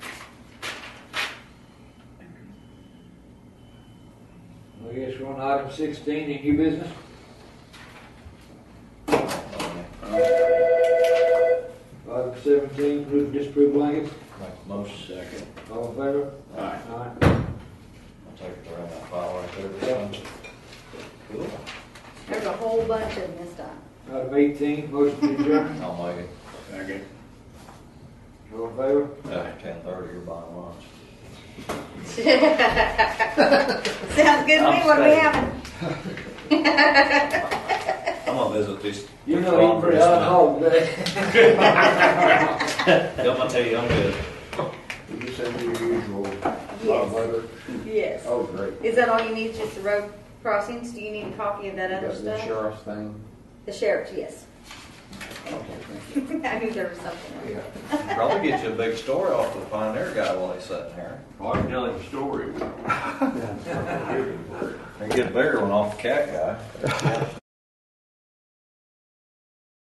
I guess we're on item sixteen, any new business? Item seventeen, approve and disapprove blankets, Make a motion second. all in favor? Aye. Aye. I'll take it around that file right there. or something. Cool. There's a whole bunch of them this time. Item eighteen, motion to adjourn, I'll make it. Second. all in favor? After uh, ten thirty, you're buying lunch. Sounds good to me, I'm what are we staying. having? I'm gonna visit these. You're not eating very properties hot tonight. hog today. Don't I tell you, I'm good. Did you send your usual? Yes, letter? yes. Oh, great. Is that all you need, just the road crossings? Do you need a copy of that other Got the stuff? sheriff's thing? The sheriff's, yes. Okay, thank you. I knew there was something. else. Yeah. Probably get you a big story off the Pioneer guy while he's sitting here. Well, I can tell him a story. And get a bigger one off the cat guy.